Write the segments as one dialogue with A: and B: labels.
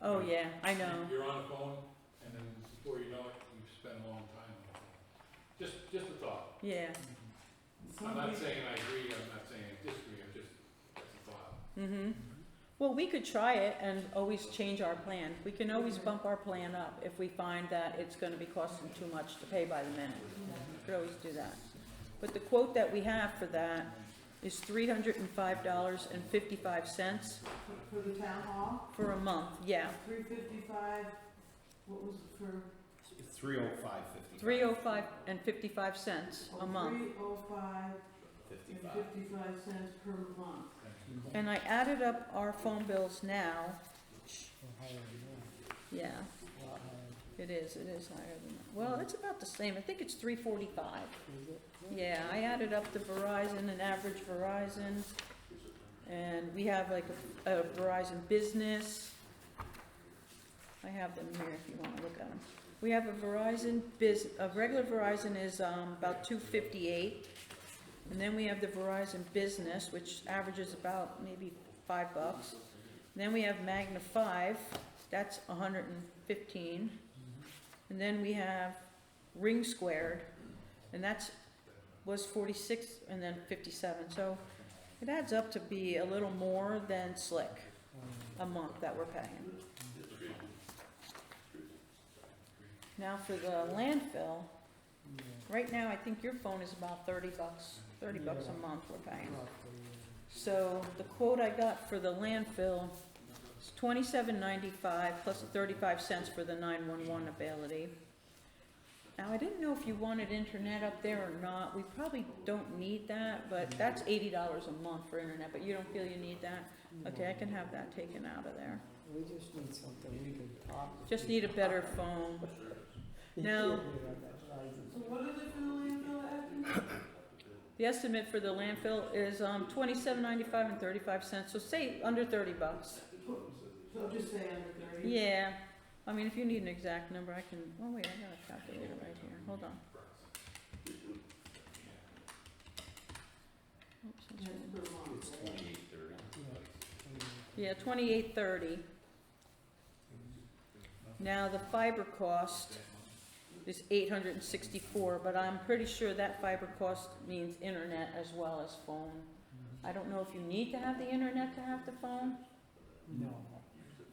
A: Oh, yeah, I know.
B: You're on the phone, and then before you know it, you've spent a long time on it. Just, just a thought.
A: Yeah.
B: I'm not saying I agree, I'm not saying I disagree, I'm just, that's a thought.
A: Mm-hmm. Well, we could try it and always change our plan. We can always bump our plan up if we find that it's gonna be costing too much to pay by the minute. We Could always do that. But the quote that we have for that is three hundred and five dollars and fifty-five cents
C: For- For the town hall,
A: for a month, yeah.
C: three fifty-five, what was it for?
D: Three oh five fifty.
A: Three oh five and fifty-five cents a month.
C: Three oh five and
D: Fifty-five.
C: fifty-five cents per month.
A: And I added up our phone bills now. Yeah. It is, it is higher than that. Well, it's about the same. I think it's three forty-five. Yeah, I added up the Verizon and average Verizon. And we have like a a Verizon Business. I have them here if you wanna look at them. We have a Verizon Biz, a regular Verizon is, um, about two fifty-eight. And then we have the Verizon Business, which averages about maybe five bucks. Then we have Magna Five, that's hundred and fifteen. And then we have Ring Squared, and that's, was forty-six and then fifty-seven, so it adds up to be a little more than Slick a month that we're paying. Now for the landfill, right now, I think your phone is about thirty bucks, thirty bucks a month we're paying. So the quote I got for the landfill is twenty-seven ninety-five plus thirty-five cents for the nine-one-one ability. Now, I didn't know if you wanted internet up there or not, we probably don't need that, but that's eighty dollars a month for internet, but you don't feel you need that? Okay, I can have that taken out of there,
E: We just need something we can talk. to
A: just need a better phone.
E: people
A: now-
E: about that license.
C: So what is it for the landfill, Abby?
A: The estimate for the landfill is, um, twenty-seven ninety-five and thirty-five cents, so say under thirty bucks.
C: So just say under thirty.
A: Yeah, I mean, if you need an exact number, I can, oh wait, I got a calculator right here, hold on. Oops, that's
C: That's
A: right.
C: per month,
D: It's
C: right?
D: twenty-eight thirty.
A: Yeah, twenty-eight thirty. Now, the fiber cost is eight hundred and sixty-four, but I'm pretty sure that fiber cost means internet as well as phone. I don't know if you need to have the internet to have the phone,
E: No,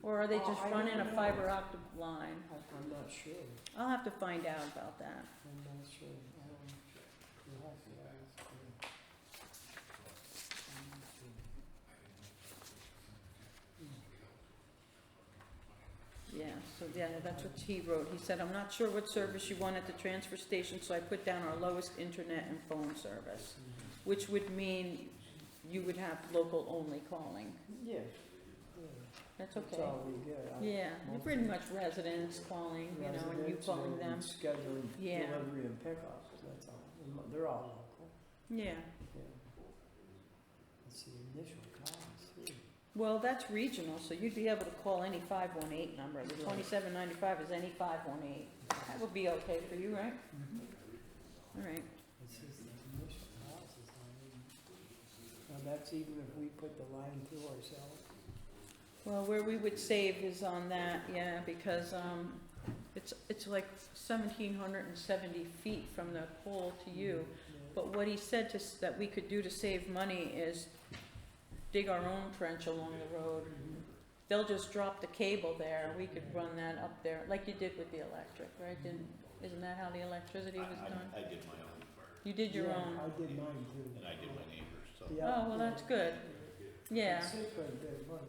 A: or are they just
E: Oh, I
A: running a
E: don't know.
A: fiber optic line?
E: I- I'm not sure,
A: I'll have to find out about that.
E: I'm not sure. I don't- you have to ask her. I'm not sure.
A: Yeah, so, yeah, that's what he wrote. He said, I'm not sure what service you want at the transfer station, so I put down our lowest internet and phone service, which would mean you would have local-only calling.
E: Yeah, yeah,
A: That's
E: that's
A: okay.
E: all we get. I-
A: Yeah, you're pretty much residents calling, you know, and you
E: residents
A: calling
E: and
A: them.
E: Scheduling
A: Yeah.
E: delivery and pickup, that's all, They're- they're all local,
A: Yeah,
E: yeah. It's the initial cost, too.
A: well, that's regional, so you'd be able to call any five one eight number. The
E: Right.
A: twenty-seven ninety-five is any five one eight. That would be okay for you, right?
E: Mm-hmm.
A: All right,
E: It's just the initial cost is not even. Now, that's even if we put the line through ourselves.
A: well, where we would save is on that, yeah, because, um, it's, it's like seventeen hundred and seventy feet from the pole to you.
E: Mm-hmm. Yeah.
A: But what he said to, s- that we could do to save money is dig our own trench along the road.
E: Mm-hmm.
A: They'll just drop the cable there, we could run that up there, like you did with the electric, right? Didn't,
E: Mm-hmm.
A: isn't that how the electricity
D: I,
A: was done?
D: I, I did my own part,
A: You did your
E: Yeah,
A: own,
E: I did mine too.
D: and I did my neighbors, so.
E: Yeah.
A: oh, well, that's good, yeah.
E: It's safe right there, but-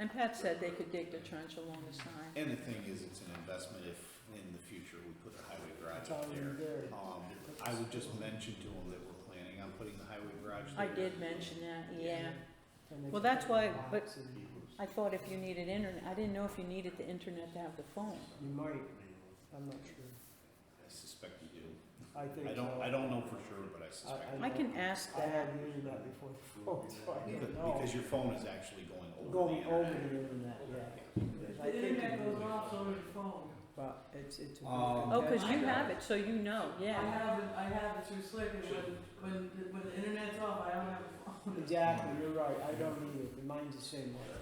A: And Pat said they could dig the trench along the side,
D: And the thing is, it's an investment if in the future we put a highway garage
E: It's
D: up
E: already
D: there.
E: there.
D: Um, I would just mention to them that we're planning on putting the highway garage
A: I
D: there.
A: did mention that, yeah.
E: And they
A: Well,
E: can
A: that's
E: put
A: why- but-
E: locks and
A: I thought if you needed internet, I didn't know if you needed the internet to have the phone.
E: You might, I'm not sure.
D: I suspect you do.
E: I think
D: I don't,
E: so.
D: I don't know for sure, but I suspect.
E: I-
A: I can ask
E: I
A: that,
E: had the internet before the phone, so I
D: Because
E: don't know.
D: because your phone is actually going over the
E: Going over the
D: internet.
E: internet, yeah. I
C: The
E: think,
C: internet
E: it
C: goes
E: is,
C: off over the phone.
E: but it's, it's. a good
D: Um,
A: oh, cause you
E: investment.
A: have it, so you know,
C: I
A: yeah.
C: have it, I have it through Slick, and when, when, when the internet's off, I don't have a phone.
E: Exactly, you're right, I don't need it, mine's the same way.